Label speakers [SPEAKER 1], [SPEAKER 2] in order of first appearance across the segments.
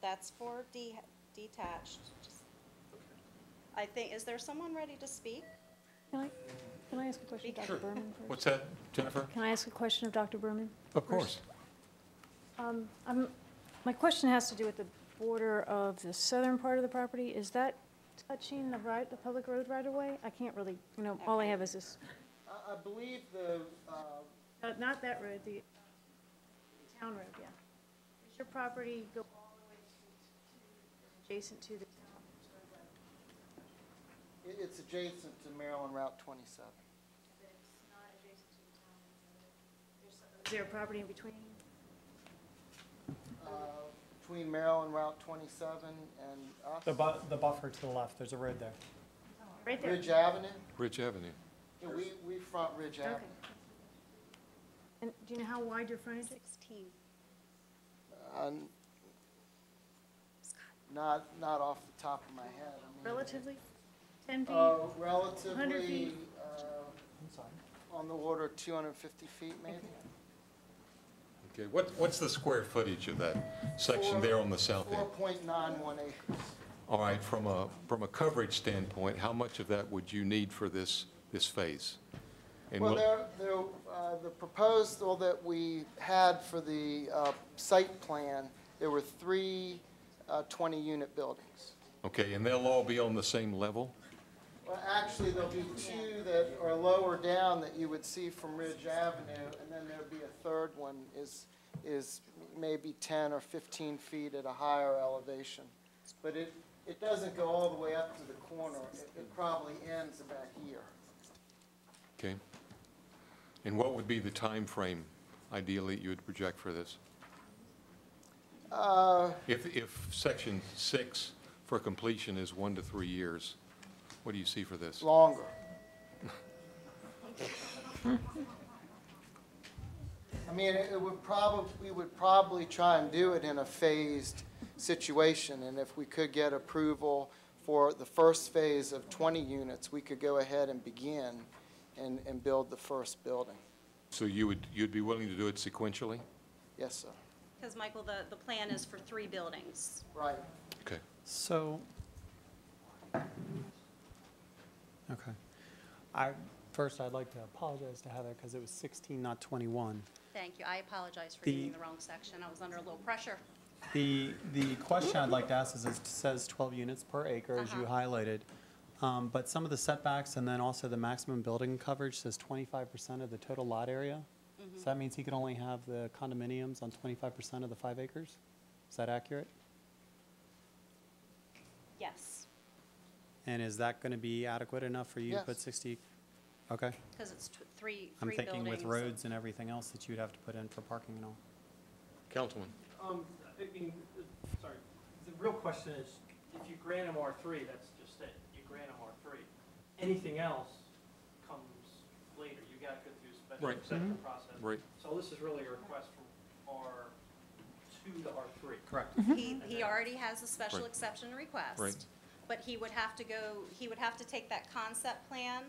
[SPEAKER 1] that's for de- detached. Just- I think, is there someone ready to speak?
[SPEAKER 2] Can I, can I ask a question of Dr. Berman first?
[SPEAKER 3] What's that, Jennifer?
[SPEAKER 2] Can I ask a question of Dr. Berman?
[SPEAKER 3] Of
[SPEAKER 2] course. Um, I'm, my question has to do with the border of the southern part of the property. Is that touching the right, the public road right away? I can't really, you know, all I have is this,
[SPEAKER 4] I, I believe the, uh,
[SPEAKER 2] Uh, not that road, the town road, yeah. Does your property go all the way to, to, adjacent to the town?
[SPEAKER 4] it, it's adjacent to Maryland Route twenty-seven.
[SPEAKER 2] Is there a property in between?
[SPEAKER 4] Uh, Between Maryland Route twenty-seven and us.
[SPEAKER 5] The bu, the buffer to the left, there's a road there.
[SPEAKER 2] Right there?
[SPEAKER 4] Ridge Avenue,
[SPEAKER 3] Ridge Avenue.
[SPEAKER 4] Yeah, we, we front Ridge
[SPEAKER 2] Okay.
[SPEAKER 4] Avenue.
[SPEAKER 2] And do you know how wide your frontage is?
[SPEAKER 1] Sixteen.
[SPEAKER 4] Uh, n- Not, not off the top of my head. I mean,
[SPEAKER 2] Relatively? 10 feet?
[SPEAKER 4] Uh,
[SPEAKER 2] feet.
[SPEAKER 4] relatively, uh,
[SPEAKER 5] I'm sorry.
[SPEAKER 4] on the order of two hundred and fifty feet maybe.
[SPEAKER 3] Okay, what, what's the square footage of that section there on the south
[SPEAKER 4] Four
[SPEAKER 3] end?
[SPEAKER 4] point nine one acres.
[SPEAKER 3] All right, from a, from a coverage standpoint, how much of that would you need for this, this phase? And
[SPEAKER 4] Well,
[SPEAKER 3] what-
[SPEAKER 4] there, there, uh, the proposal that we had for the, uh, site plan, there were three, uh, twenty-unit buildings.
[SPEAKER 3] Okay, and they'll all be on the same level?
[SPEAKER 4] Well, actually, there'll be two that are lower down that you would see from Ridge Avenue, and then there'll be a third one is, is maybe ten or fifteen feet at a higher elevation. But it, it doesn't go all the way up to the corner, it, it probably ends about here.
[SPEAKER 3] Okay? And what would be the time frame, ideally, you would project for this?
[SPEAKER 4] Uh,
[SPEAKER 3] If, if section six for completion is one to three years, what do you see for this?
[SPEAKER 4] longer. I mean, it it would probably, we would probably try and do it in a phased situation, and if we could get approval for the first phase of 20 units, we could go ahead and begin and, and build the first building.
[SPEAKER 3] So you would, you'd be willing to do it sequentially?
[SPEAKER 4] Yes, sir.
[SPEAKER 1] Because, Michael, the, the plan is for three buildings.
[SPEAKER 4] Right.
[SPEAKER 3] Okay.
[SPEAKER 5] So, okay. I, first, I'd like to apologize to Heather because it was 16, not 21.
[SPEAKER 1] Thank you. I apologize for
[SPEAKER 5] The-
[SPEAKER 1] reading the wrong section. I was under a little pressure.
[SPEAKER 5] The, the question I'd like to ask is, it says 12 units per acre, as you highlighted. Um, But some of the setbacks and then also the maximum building coverage says 25% of the total lot area. So that means he could only have the condominiums on 25% of the five acres? Is that accurate?
[SPEAKER 1] Yes,
[SPEAKER 5] And is that going to be adequate enough for you to put
[SPEAKER 4] Yes.
[SPEAKER 5] 60? Okay.
[SPEAKER 1] because it's tw- three,
[SPEAKER 5] I'm
[SPEAKER 1] three buildings.
[SPEAKER 5] thinking with roads and everything else that you'd have to put in for parking and all.
[SPEAKER 3] Councilman?
[SPEAKER 6] Um, I mean, uh, sorry, the real question is, if you grant him R three, that's just it, you grant him R three. Anything else comes later, you gotta go through a special
[SPEAKER 3] Right.
[SPEAKER 6] exception process.
[SPEAKER 3] Right.
[SPEAKER 6] So this is really a request from R two to R three.
[SPEAKER 5] Correct.
[SPEAKER 1] He, he already has a special
[SPEAKER 3] Right.
[SPEAKER 1] exception request.
[SPEAKER 3] Right.
[SPEAKER 1] But he would have to go, he would have to take that concept plan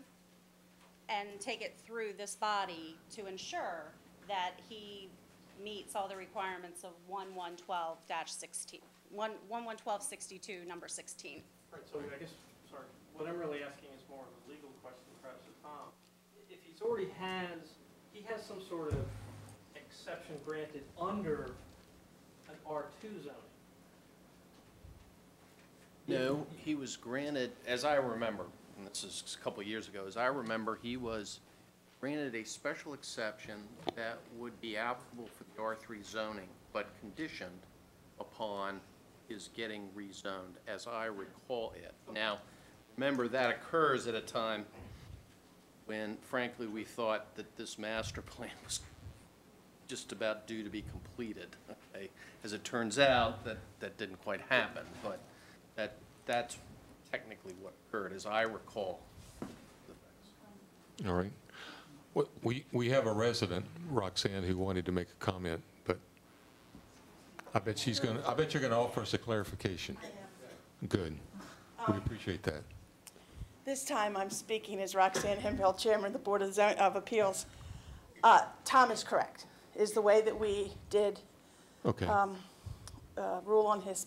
[SPEAKER 1] and take it through this body to ensure that he meets all the requirements of one one twelve dash sixteen, one, one one twelve sixty-two, number sixteen.
[SPEAKER 6] Right, so I guess, sorry, what I'm really asking is more of a legal question perhaps to Tom. If he's already has, he has some sort of exception granted under an R two zoning.
[SPEAKER 7] No, he was granted, as I remember, and this is a couple of years ago, as I remember, he was granted a special exception that would be applicable for the R3 zoning, but conditioned upon his getting rezoned, as I recall it. Now, remember, that occurs at a time when frankly, we thought that this master plan was just about due to be completed. okay? As it turns out, that, that didn't quite happen, but that, that's technically what occurred, as I recall.
[SPEAKER 3] All right. Well, We, we have a resident, Roxanne, who wanted to make a comment, but I bet she's going to, I bet you're going to offer us a clarification. Good. We appreciate that.
[SPEAKER 8] This time I'm speaking as Roxanne Hempel, Chairman of the Board of Zon- of Appeals. Uh, Tom is correct, is the way that we did
[SPEAKER 3] Okay.
[SPEAKER 8] um, uh, rule on his